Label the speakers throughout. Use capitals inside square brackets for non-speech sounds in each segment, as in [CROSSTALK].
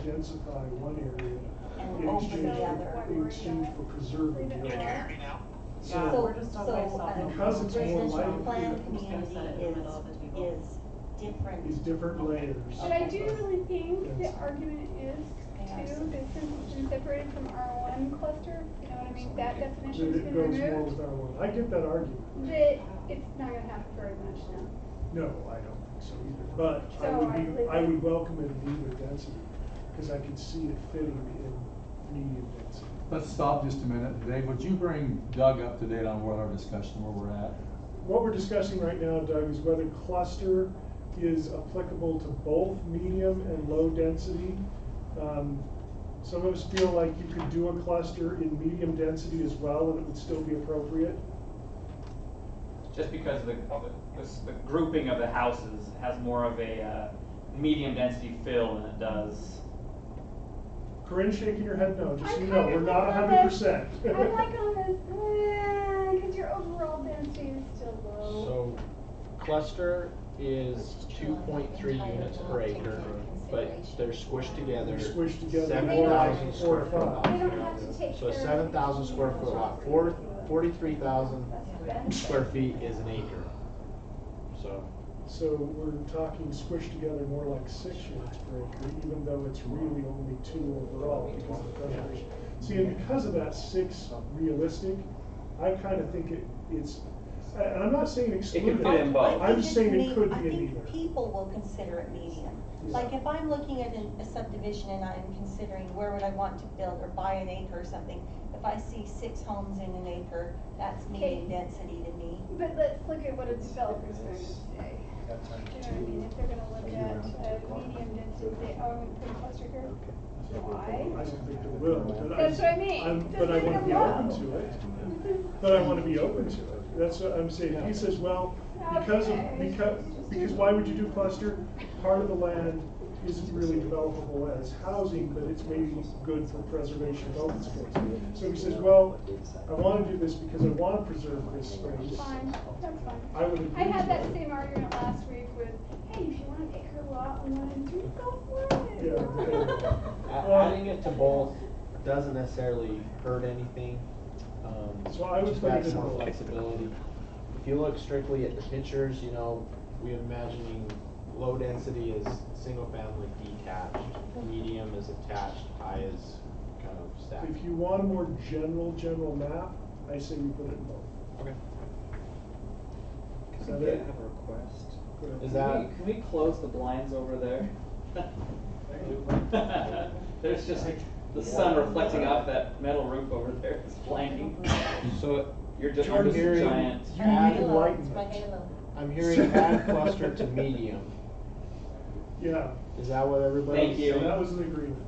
Speaker 1: densify one area
Speaker 2: And
Speaker 1: in
Speaker 2: open the
Speaker 1: exchange, for-
Speaker 2: other.
Speaker 1: in exchange for preserving the
Speaker 3: Can you
Speaker 1: other.
Speaker 3: hear me now?
Speaker 2: Yeah,
Speaker 1: So,
Speaker 2: we're
Speaker 4: So,
Speaker 2: just on
Speaker 4: so,
Speaker 2: myself.
Speaker 4: uh,
Speaker 1: Because it's more
Speaker 4: residential
Speaker 1: light.
Speaker 4: planned
Speaker 2: I'm just gonna set it in
Speaker 4: community
Speaker 2: the
Speaker 4: is,
Speaker 2: middle of the table.
Speaker 4: is different.
Speaker 1: these different layers.
Speaker 5: But I do really think the
Speaker 1: Yes.
Speaker 5: argument is
Speaker 2: Yeah.
Speaker 5: too, that since it's been separated from R one cluster, you know what I mean, that
Speaker 1: That
Speaker 5: definition's
Speaker 1: it
Speaker 5: been
Speaker 1: goes more with
Speaker 5: removed,
Speaker 1: our one. I get that argument.
Speaker 5: that it's not gonna happen very much now.
Speaker 1: No, I don't think so either, but I
Speaker 5: So I
Speaker 1: would be,
Speaker 5: believe-
Speaker 1: I would welcome it at either density, because I could see it fitting in medium density.
Speaker 6: Let's stop just a minute. Dave, would you bring Doug up to date on what our discussion, where we're at?
Speaker 1: What we're discussing right now, Doug, is whether cluster is applicable to both medium and low density. Um, Some of us feel like you could do a cluster in medium density as well, and it would still be appropriate.
Speaker 7: just because the, the, the grouping of the houses has more of a uh, medium density fill than it does.
Speaker 1: Corinne shaking her head no, just so
Speaker 5: I'm
Speaker 1: you know,
Speaker 5: kind
Speaker 1: we're
Speaker 5: of
Speaker 1: not
Speaker 5: like
Speaker 1: hundred percent.
Speaker 5: I'm like on this, because your overall density is still low.
Speaker 8: So cluster is two point three units per acre, but they're squished together.
Speaker 1: They're squished together.
Speaker 8: Seven thousand
Speaker 1: Four or
Speaker 8: square foot
Speaker 1: five.
Speaker 8: lot.
Speaker 5: They don't have to take.
Speaker 8: So a
Speaker 5: care of
Speaker 8: seven thousand square foot lot, four, forty-three thousand
Speaker 5: That's the benefit.
Speaker 8: square feet is an acre. So,
Speaker 1: So we're talking squished together more like six units per acre, even though it's really only two overall because of preservation. See, and because of that six realistic, I kind of think it, it's, and and I'm not saying exclude
Speaker 7: could fit in both.
Speaker 4: I think
Speaker 1: I'm
Speaker 4: it's
Speaker 1: saying
Speaker 4: me-
Speaker 1: it could
Speaker 4: I
Speaker 1: be in
Speaker 4: think
Speaker 1: either.
Speaker 4: People will consider it medium.
Speaker 1: Yeah.
Speaker 4: Like if I'm looking at a a subdivision and I'm considering where would I want to build or buy an acre or something, if I see six homes in an acre, that's medium
Speaker 5: Okay.
Speaker 4: density to me.
Speaker 5: But let's look at what a developer's going to say. Do you know what I mean? If they're gonna look at a medium density, say, oh, I'm gonna put a cluster here.
Speaker 1: I
Speaker 5: Why?
Speaker 1: don't think it will, but I.
Speaker 5: That's what I mean.
Speaker 1: I'm-
Speaker 5: Just
Speaker 1: But I
Speaker 5: leave
Speaker 1: want
Speaker 5: it
Speaker 1: to be
Speaker 5: alone.
Speaker 1: open to it.
Speaker 5: [LAUGHS]
Speaker 1: But I want to be open to it. That's what I'm saying. He says, well, because of,
Speaker 5: Okay.
Speaker 1: because, because why would you do cluster? Part of the land isn't really developable as housing, but it's maybe good for preservation of open space. So he says, well, I want to do this because I want to preserve this space.
Speaker 5: Fine, that's fine.
Speaker 1: I would agree
Speaker 5: I had that
Speaker 1: with that.
Speaker 5: same argument last week with, hey, if you want an acre lot and one and three, go for it.
Speaker 1: Yeah, okay.
Speaker 8: a- adding it to both doesn't necessarily hurt anything. Um,
Speaker 1: So I would
Speaker 8: Just
Speaker 1: put it
Speaker 8: adds
Speaker 1: in
Speaker 8: more
Speaker 1: both.
Speaker 8: flexibility. If you look strictly at the pictures, you know, we imagining low density is single family detached, medium is attached, high is kind of stacked.
Speaker 1: If you want a more general, general map, I say we put it in both.
Speaker 8: Okay.
Speaker 1: Is that it?
Speaker 9: a request?
Speaker 1: Go ahead.
Speaker 7: Can
Speaker 8: Is that,
Speaker 7: we, can we close the blinds over there? [LAUGHS] There's just the sun reflecting off that metal roof over there, it's blinding.
Speaker 8: so
Speaker 7: You're just,
Speaker 8: Jordan,
Speaker 7: you're just a
Speaker 8: hearing-
Speaker 7: giant.
Speaker 1: You need
Speaker 8: Halo,
Speaker 4: It's
Speaker 1: enlightenment.
Speaker 4: my halo.
Speaker 8: I'm hearing add cluster to medium.
Speaker 1: Yeah,
Speaker 8: Is that what everybody?
Speaker 7: Thank you.
Speaker 1: so that was an agreement.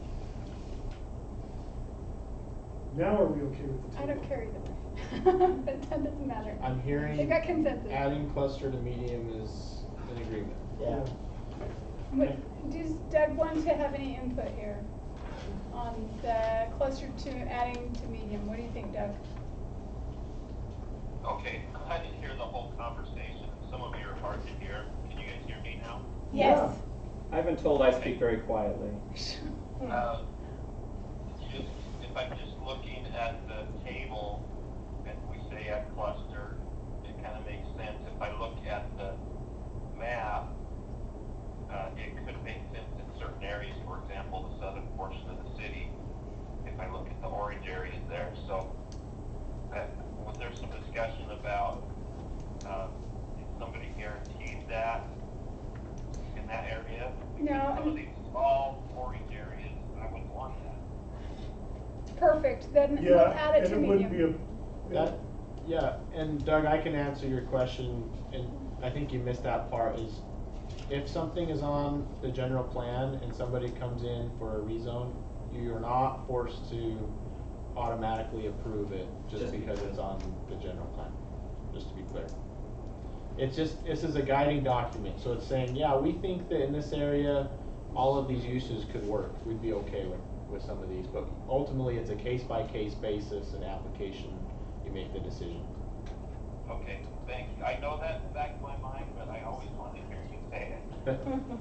Speaker 1: Now are we okay with the table?
Speaker 5: [LAUGHS] I don't care either way, [LAUGHS] but that doesn't matter.
Speaker 8: I'm
Speaker 5: They've
Speaker 8: hearing
Speaker 5: got consensus.
Speaker 8: adding cluster to medium is an agreement.
Speaker 1: Yeah.
Speaker 5: But does Doug want to have any input here on the cluster to adding to medium? What do you think, Doug?
Speaker 3: Okay, I didn't hear the whole conversation. Some of you are hard to hear. Can you guys hear me now?
Speaker 1: Yes.
Speaker 7: I've been told I speak very quietly.
Speaker 5: Hmm.
Speaker 3: Uh, Just, if I'm just looking at the table, and we say a cluster, it kind of makes sense. If I look at the map, uh, it could make sense in certain areas, for example, the southern portion of the city, if I look at the orange areas there. So, that, was there some discussion about, um, if somebody guaranteed that in that area?
Speaker 5: [LAUGHS] No, I
Speaker 3: Some of
Speaker 5: mean-
Speaker 3: these small orange areas, I wouldn't want that.
Speaker 5: Perfect, then we'll
Speaker 1: Yeah,
Speaker 5: add it
Speaker 1: and
Speaker 5: to
Speaker 1: it wouldn't be
Speaker 5: medium.
Speaker 1: a.
Speaker 8: That, yeah, and Doug, I can answer your question, and I think you missed that part, is if something is on the general plan and somebody comes in for a rezone, you're not forced to automatically approve it just
Speaker 7: Just
Speaker 8: because
Speaker 7: because.
Speaker 8: it's on the general plan, just to be clear. It's just, this is a guiding document, so it's saying, yeah, we think that in this area, all of these uses could work, we'd be okay with, with some of these, but ultimately, it's a case-by-case basis and application, you make the decision.
Speaker 4: Hmm.
Speaker 3: Okay, thank you. I know that's back of my mind, but I always want to hear you say it.